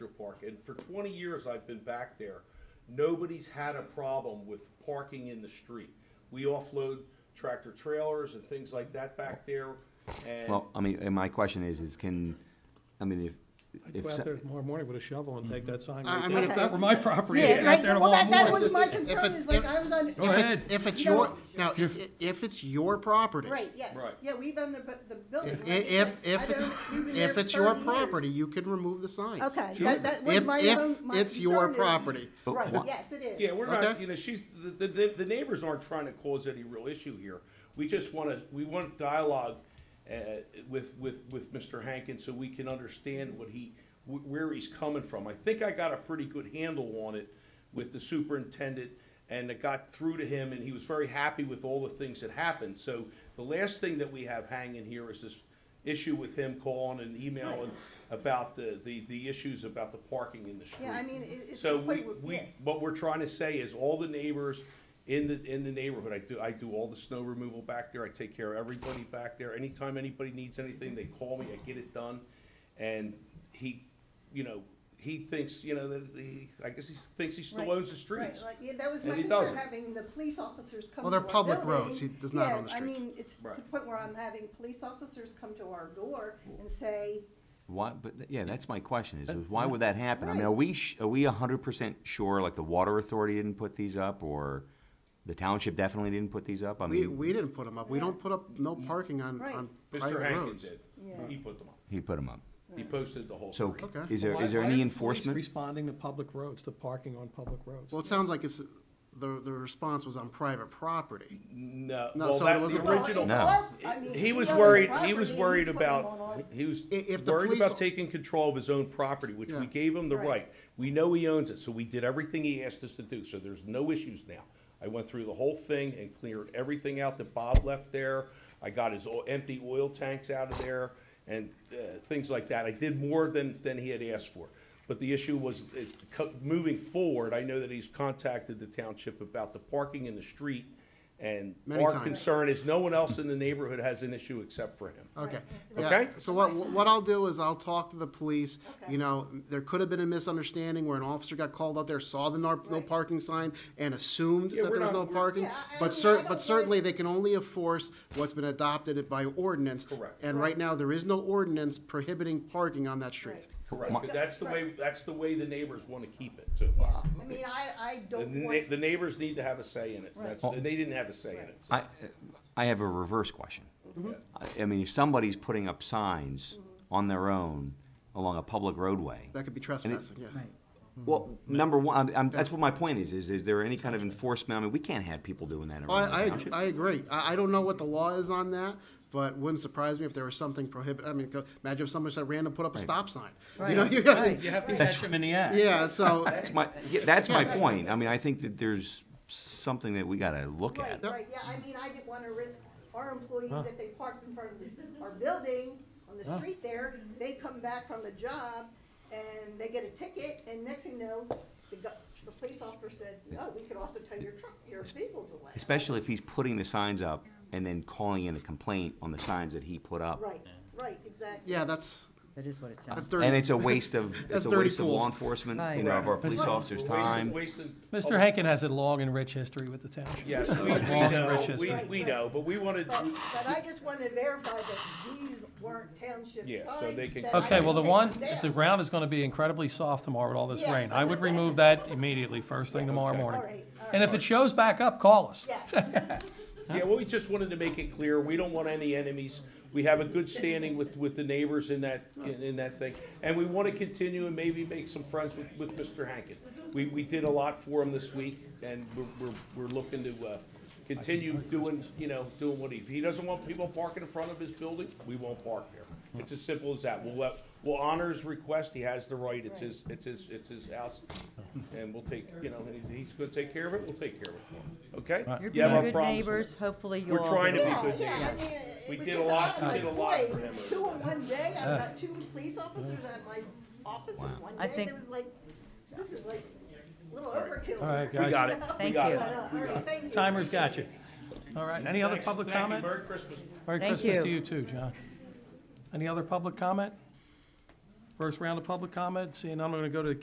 Industrial Park, and for twenty years I've been back there, nobody's had a problem with parking in the street. We offload tractor trailers and things like that back there, and Well, I mean, and my question is, is can, I mean, if, I'd if, go out so- Mm-hmm. there tomorrow morning with a shovel and take that sign I- I right mean, down. if If that that were my property, I'd Yeah, be out right, there well, that, tomorrow that morning. was my If it's- concern, is like, I was on. Go If it- ahead. If it's You know your, what? now, if, if it's your property. Right, yes, Right. yeah, we've owned the, bu- the building. If, like I if, said, I if it's, don't- we've been there if for it's your 30 years. property, you can remove the signs. Okay, that, that was If- my if own, my it's your concern is- property. But Right, wha- yes, it is. Yeah, we're not, Okay. you know, she's, the, the, the neighbors aren't trying to cause any real issue here. We just wanna, we want dialogue, uh, with, with, with Mr. Hankin so we can understand what he, wh- where he's coming from. I think I got a pretty good handle on it with the superintendent and it got through to him and he was very happy with all the things that happened. So the last thing that we have hanging here is this issue with him calling and emailing about the, the, the issues about the parking in the street. Yeah, I mean, it- it's. So the way we, we're- we, yeah. what we're trying to say is all the neighbors in the, in the neighborhood, I do, I do all the snow removal back there, I take care of everybody back there. Anytime anybody needs anything, they call me, I get it done. And he, you know, he thinks, you know, that he, I guess he thinks he still Right, owns the Right, streets. like, yeah, that was And my he concern, doesn't. having the police officers come to Well, our they're building. public roads. He does not own the streets. Yeah, I mean, it's to the Right. point where I'm having police officers come to our door and say, why, but, yeah, that's my question, is why would that happen? I mean, are Right. we, sh- are we hundred percent sure, like, the water authority didn't put these up, or the township definitely didn't put these up? I We, mean, we didn't put them up. We don't put up no parking on, Right. on Mr. private Hankin roads. did, Yeah. he put them up, he put them up. he posted the whole So, street. Okay. is there, Why- is there why any are police enforcement? Responding to public roads, to parking on public roads. Well, it sounds like it's, the, the response was on private property. No, No, well, so it that, the wasn't- well, original. it's No. our- I mean, He we was own the worried, property he and was we worried put them on about, our- he was I- if the worried police- about taking control of his own property, which we Yeah. gave him the Right. right. We know he owns it, so we did everything he asked us to do, so there's no issues now. I went through the whole thing and cleared everything out that Bob left there. I got his o- empty oil tanks out of there and, uh, things like that. I did more than, than he had asked for. But the issue was, it, co- moving forward, I know that he's contacted the township about the parking in the street and Many our times. concern is no one else in the neighborhood has an issue except for him. Okay. Right. yeah. Okay. So what, what I'll do is I'll talk to the police, Okay. you know, there could have been a misunderstanding where an officer got called out there, saw the no, no Right. parking sign and assumed Yeah, that we're there was not- no we're- parking. Yeah, I- I But mean, I cer, don't but blame- certainly they can only enforce what's been adopted by ordinance. Correct. And Right. right now, there is no ordinance prohibiting parking on that street. Right. Correct, My- but that's the way, that's the way the neighbors want to keep it too. Yeah, I mean, I, I The don't na- want, the neighbors need to have a say in it, that's, Right. they didn't have a say in it. so- I, I have a reverse question. I, I mean, if somebody's putting up signs on their own along a public roadway, That could be trespassing, yeah. Well, number one, I'm, I'm, that's what my point is, is, is there any kind of enforcement? I mean, we can't have people doing that Oh, I, around I, the ag- township. I agree. I, I don't know what the law is on that, but wouldn't surprise me if there was something prohibit, I mean, co- imagine if someone said random put up a stop sign. You know, you got, You have to catch him in the act. yeah, so, That's my, yeah, that's my Yes. point. I mean, I think that there's something that we gotta look right, at. right, yeah, I mean, I didn't wanna risk our employees, if they parked in front of our building on the street there, they come back from the job and they get a ticket, and next thing you know, the, go- the police officer said, no, we could also tow your truck, your vehicles away. Especially if he's putting the signs up and then calling in a complaint on the signs that he put up. Right, right, exactly. yeah, that's, That is what it that's sounds. dirty. Uh, And it's a waste of, it's That's a dirty waste of law pools. enforcement, you Right. know, of our Correct. police officers' We're wasting- time. wasting Mr. public- Hankin has a long and rich history with the township. Yes, we, we Long and know, rich we, history. we know, but we wanted, But, but I just wanted to verify that these weren't township signs. Yeah, so they can- that I Okay, well, the can take one, them if down. the ground is gonna be incredibly soft tomorrow with all this Yes, rain, I would that's right. remove that immediately, first thing tomorrow Okay. morning. All right, all And if it shows back up, call us. Yes. yeah, well, we just wanted to make it clear, we don't want any enemies. We have a good standing with, with the neighbors in that, in, in that thing. And we want to continue and maybe make some friends with, with Mr. Hankin. We, we did a lot for him this week and we're, we're, we're looking to, uh, continue doing, you know, doing what he, if he doesn't want people parking in front of his building, we won't park there. It's as simple as that. We'll, let- we'll honor his request, he has the right, it's his, it's his, it's his house. And we'll take, you know, he- he's gonna take care of it, we'll take care of it for him, okay? You're You have our being good problems. neighbors, hopefully you'll We're all. trying to be get Yeah, along. good yeah, I neighbors. mean, it We was did just a lot- lot of we did a lot for employees. him over Two in one day, I Uh, got two police officers at my office in one I day, think- it was like, this is like a little overkill. uh, All right, We guys. got it, we Thank got you. it. All right, thank you. Timer's got you. All right, any other Thanks- public thanks. comment? Merry Christmas. Merry Thank Christmas to you. you too, John. Any other public comment? First round of public comment, seeing none, I'm gonna go to the